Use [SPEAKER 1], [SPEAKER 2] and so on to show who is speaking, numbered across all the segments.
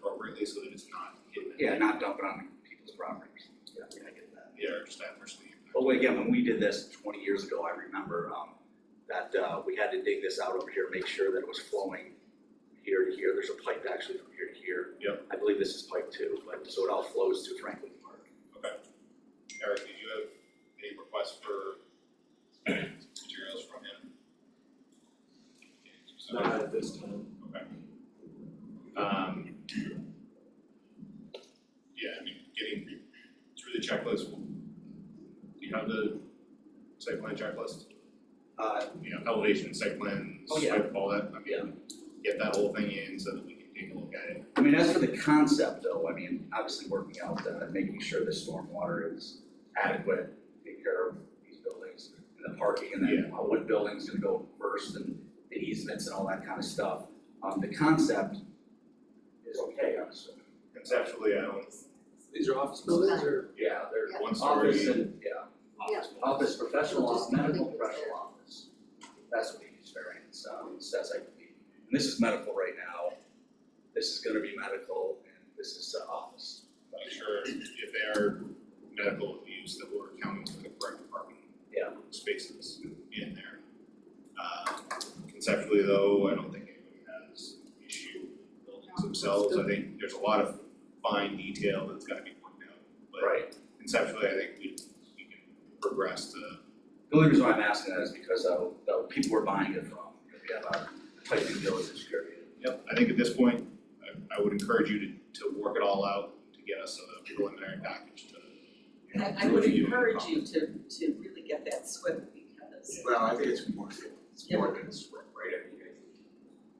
[SPEAKER 1] correctly so that it's not hidden.
[SPEAKER 2] Yeah, not dump it on people's properties. Yeah, I get that.
[SPEAKER 1] Yeah, or just adversely impacted.
[SPEAKER 2] But when- again, when we did this twenty years ago, I remember, um, that, uh, we had to dig this out over here, make sure that it was flowing here to here, there's a pipe actually from here to here.
[SPEAKER 1] Yep.
[SPEAKER 2] I believe this is pipe two, but, so it all flows to Franklin Park.
[SPEAKER 1] Eric, did you have any requests for materials from him? So-
[SPEAKER 3] Not at this time.
[SPEAKER 1] Okay. Um. Yeah, I mean, getting through the checklist, do you have the site plan checklist?
[SPEAKER 2] Uh,
[SPEAKER 1] You know, elevation, site plans,
[SPEAKER 2] Oh, yeah.
[SPEAKER 1] all that, I mean, get that whole thing in so that we can take a look at it.
[SPEAKER 2] I mean, as for the concept though, I mean, obviously working out that, making sure the stormwater is adequate, take care of these buildings and the parking and then uh, what building's gonna go first and the easements and all that kind of stuff. Um, the concept is okay, I'm assuming.
[SPEAKER 1] Conceptually, I don't,
[SPEAKER 3] These are office buildings or?
[SPEAKER 2] Yeah, they're
[SPEAKER 4] Yeah.
[SPEAKER 1] one story,
[SPEAKER 2] office and, yeah.
[SPEAKER 4] Yeah.
[SPEAKER 2] Office, professional
[SPEAKER 4] We'll
[SPEAKER 2] office,
[SPEAKER 4] just
[SPEAKER 2] medical
[SPEAKER 4] leave it
[SPEAKER 2] professional
[SPEAKER 4] there.
[SPEAKER 2] office. That's what we use variance, um, says I believe. And this is medical right now. This is gonna be medical and this is uh, office.
[SPEAKER 1] make sure if they are medical use that we're accounting for the correct parking.
[SPEAKER 2] Yeah.
[SPEAKER 1] Spaces in there. Um, conceptually though, I don't think anyone has an issue with buildings themselves, I think there's a lot of fine detail that's gotta be worked out. But
[SPEAKER 2] Right.
[SPEAKER 1] conceptually, I think we, we can progress to,
[SPEAKER 2] The only reason why I'm asking that is because uh, the people we're buying it from, we have a tight due diligence period.
[SPEAKER 1] yep, I think at this point, I, I would encourage you to, to work it all out, to get us a preliminary package to. you know,
[SPEAKER 5] I I would
[SPEAKER 1] review and
[SPEAKER 5] encourage
[SPEAKER 1] comment.
[SPEAKER 5] you to to really get that swift because
[SPEAKER 3] Well, I think it's more, it's more than a sweat, right? I mean, I think,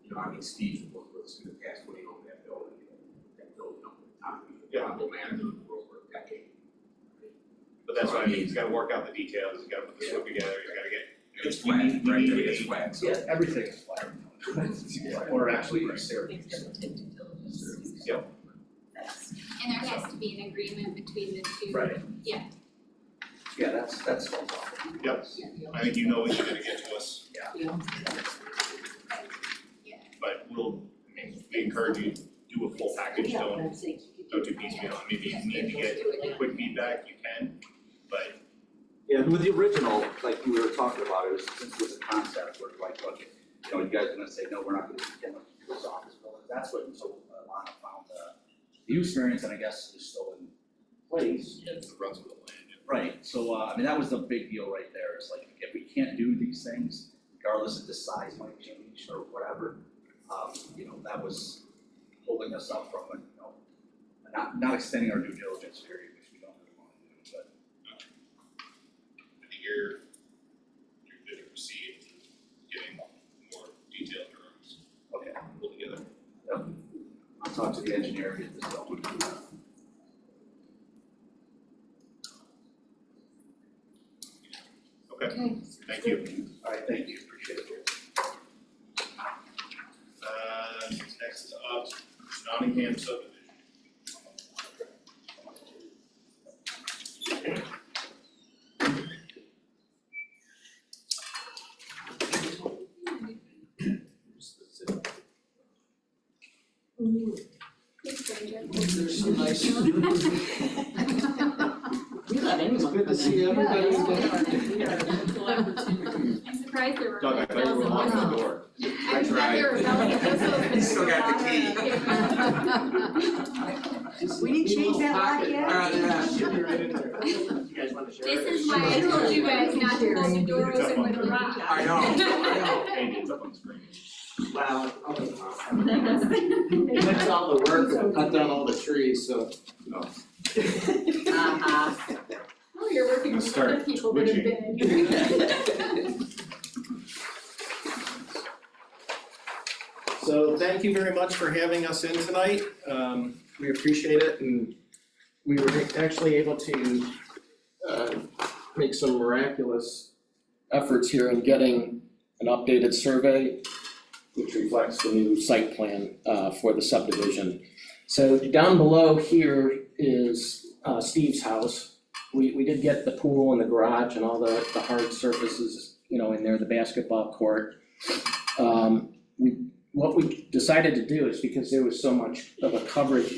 [SPEAKER 3] you know, I mean, Steve worked with us in the past when he owned that building, that building up at the top.
[SPEAKER 1] Yeah.
[SPEAKER 3] Honorable manager of the world for a decade.
[SPEAKER 1] But that's what I mean, he's gotta work out the details, he's gotta put this book together, he's gotta get.
[SPEAKER 3] It's flat, right, it's flat, so.
[SPEAKER 2] everything is flat. Or actually, it's there.
[SPEAKER 5] things that take due diligence.
[SPEAKER 1] Yep.
[SPEAKER 5] That's-
[SPEAKER 6] And there has to be an agreement between the two.
[SPEAKER 2] Right.
[SPEAKER 6] Yeah.
[SPEAKER 2] Yeah, that's, that's no problem.
[SPEAKER 1] Yep. I think you know what you're gonna get to us,
[SPEAKER 5] Yeah.
[SPEAKER 1] but we'll, I mean, we encourage you, do a full package, don't, don't do piecemeal, I mean, if you need to get quick feedback, you can, but
[SPEAKER 2] Yeah, and with the original, like we were talking about, it was, since it was a concept, we're like, okay, you know, you guys are gonna say, no, we're not gonna get much to this office building. That's what, so uh, Lana found uh, the use variance, and I guess is still in place.
[SPEAKER 1] it's the runs of the land.
[SPEAKER 2] Right, so, uh, I mean, that was the big deal right there, it's like, if we can't do these things, regardless if the size might change or whatever, um, you know, that was holding us up from, you know, not, not extending our due diligence period, which we don't really wanna do, but.
[SPEAKER 1] I think you're, you're good to proceed, getting more detailed drawings
[SPEAKER 2] Okay,
[SPEAKER 1] pulled together.
[SPEAKER 2] I'll talk to the engineer, get this going.
[SPEAKER 1] Okay,
[SPEAKER 6] Okay.
[SPEAKER 1] thank you.
[SPEAKER 2] Alright, thank you, appreciate it.
[SPEAKER 1] Uh, next up, Nottingham subdivision.
[SPEAKER 7] There's some nice.
[SPEAKER 5] We let anyone.
[SPEAKER 7] Good to see everybody again.
[SPEAKER 5] We
[SPEAKER 6] Yeah,
[SPEAKER 5] are a wonderful opportunity.
[SPEAKER 6] I'm surprised there were.
[SPEAKER 1] Doug, I thought you were
[SPEAKER 6] bells and
[SPEAKER 1] locking the
[SPEAKER 6] whistles.
[SPEAKER 1] door.
[SPEAKER 6] I thought there were bells and whistles.
[SPEAKER 3] He's still got the key.
[SPEAKER 5] We didn't change that lock yet?
[SPEAKER 7] Alright, yeah.
[SPEAKER 3] Should be right in there.
[SPEAKER 7] You guys want to share?
[SPEAKER 6] This is why I told you guys not to close the doors
[SPEAKER 1] It's up on
[SPEAKER 6] and with a
[SPEAKER 1] the-
[SPEAKER 6] lock.
[SPEAKER 7] I know, I
[SPEAKER 1] Andy, it's up on the screen.
[SPEAKER 7] know. Wow, okay. That's all the work, I cut down all the trees, so.
[SPEAKER 5] Uh-huh.
[SPEAKER 6] Oh, you're working
[SPEAKER 1] Let's
[SPEAKER 6] with other
[SPEAKER 1] start
[SPEAKER 6] people that have been. in.
[SPEAKER 3] So thank you very much for having us in tonight. Um, we appreciate it and we were actually able to uh, make some miraculous
[SPEAKER 8] efforts here in getting an updated survey, which reflects the new site plan uh, for the subdivision. So down below here is uh, Steve's house. We, we did get the pool and the garage and all the, the hard surfaces, you know, in there, the basketball court. Um, We, what we decided to do is because there was so much of a coverage